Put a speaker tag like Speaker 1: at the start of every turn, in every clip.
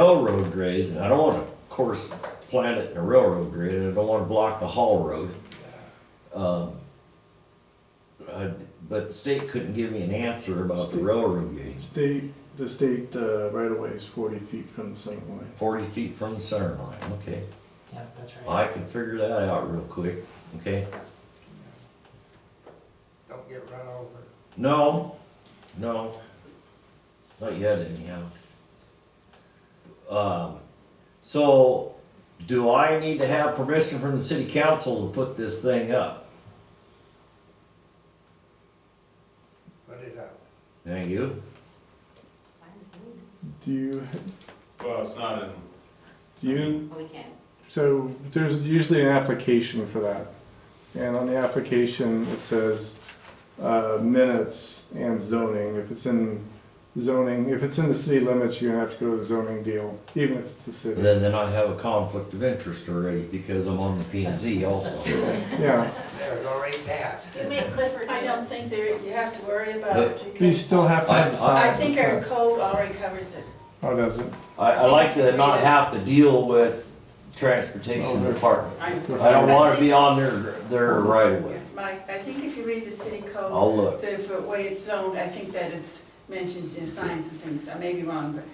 Speaker 1: railroad grade, and I don't wanna, of course, plant it in a railroad grade, and I don't wanna block the haul road. Um, I- But the state couldn't give me an answer about the railroad grade,
Speaker 2: State, the state uh, right away is forty feet from the center line.
Speaker 1: forty feet from the center line, okay.
Speaker 3: Yeah, that's
Speaker 1: Well,
Speaker 3: right.
Speaker 1: I can figure that out real quick, okay?
Speaker 4: Don't get run over.
Speaker 1: No, no, not yet anyhow. Um, so, do I need to have permission from the city council to put this thing up?
Speaker 4: Put it up.
Speaker 1: Thank you.
Speaker 2: Do you,
Speaker 5: Well, it's not in,
Speaker 2: do you,
Speaker 6: Well, we can.
Speaker 2: so there's usually an application for that. And on the application, it says uh, minutes and zoning. If it's in zoning, if it's in the city limits, you're gonna have to go to the zoning deal, even if it's the city.
Speaker 1: Then, then I have a conflict of interest already because I'm on the P and Z also.
Speaker 2: Yeah,
Speaker 4: There, it already passed.
Speaker 6: You make Clifford.
Speaker 7: I don't think there, you have to worry about
Speaker 1: But-
Speaker 7: it
Speaker 2: you
Speaker 7: because
Speaker 2: still have to have the
Speaker 7: I
Speaker 2: sign.
Speaker 7: think our code already covers it.
Speaker 2: Oh, does it?
Speaker 1: I, I like to not have to deal with transportation department.
Speaker 7: I
Speaker 1: I don't wanna be on their, their right of way.
Speaker 7: Mike, I think if you read the city code,
Speaker 1: I'll look.
Speaker 7: the f- way it's zoned, I think that it's mentions you know, signs and things. I may be wrong, but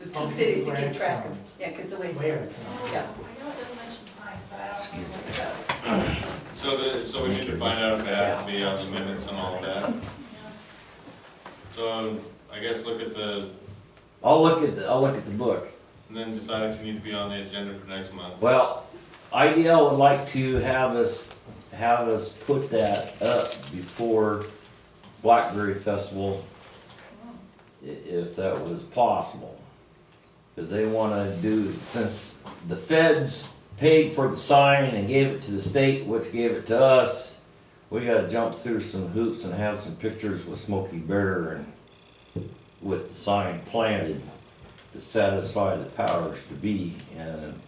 Speaker 7: the two
Speaker 3: Oh,
Speaker 7: cities to
Speaker 3: where
Speaker 7: keep
Speaker 3: it's
Speaker 7: track
Speaker 3: zoned.
Speaker 7: of. Yeah, because the way it's
Speaker 3: Where?
Speaker 7: zoned. Yeah.
Speaker 8: I know it does mention sign, but I don't know what it says.
Speaker 5: so the, so we need to find out if it has to be on the minutes and all of that. So I guess look at the,
Speaker 1: I'll look at, the- I'll look at the book.
Speaker 5: and then decide if you need to be on the agenda for next month.
Speaker 1: Well, IDL would like to have us, have us put that up before Blackberry Festival, i- if that was possible. Cause they wanna do, since the feds paid for the sign and gave it to the state, which gave it to us, we gotta jump through some hoops and have some pictures with Smokey Bear and with the sign planted to satisfy the powers to be, and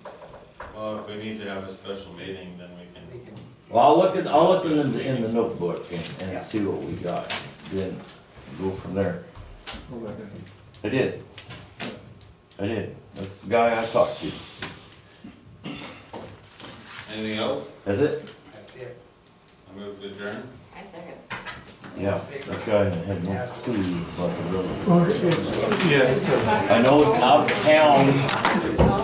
Speaker 5: Well, if we need to have a special meeting, then we can.
Speaker 4: We can-
Speaker 1: Well, I'll look at, I'll look in the, in the notebook and, and see what we got, then go from there.
Speaker 2: Hold on.
Speaker 1: I did. I did. That's the guy I talked to.
Speaker 5: Anything else?
Speaker 1: Is it?
Speaker 4: That's it.
Speaker 5: I move to adjourn.
Speaker 6: I second.
Speaker 1: Yeah, this guy had no clue about the road.
Speaker 2: Yeah, it's a-
Speaker 1: I know out of town,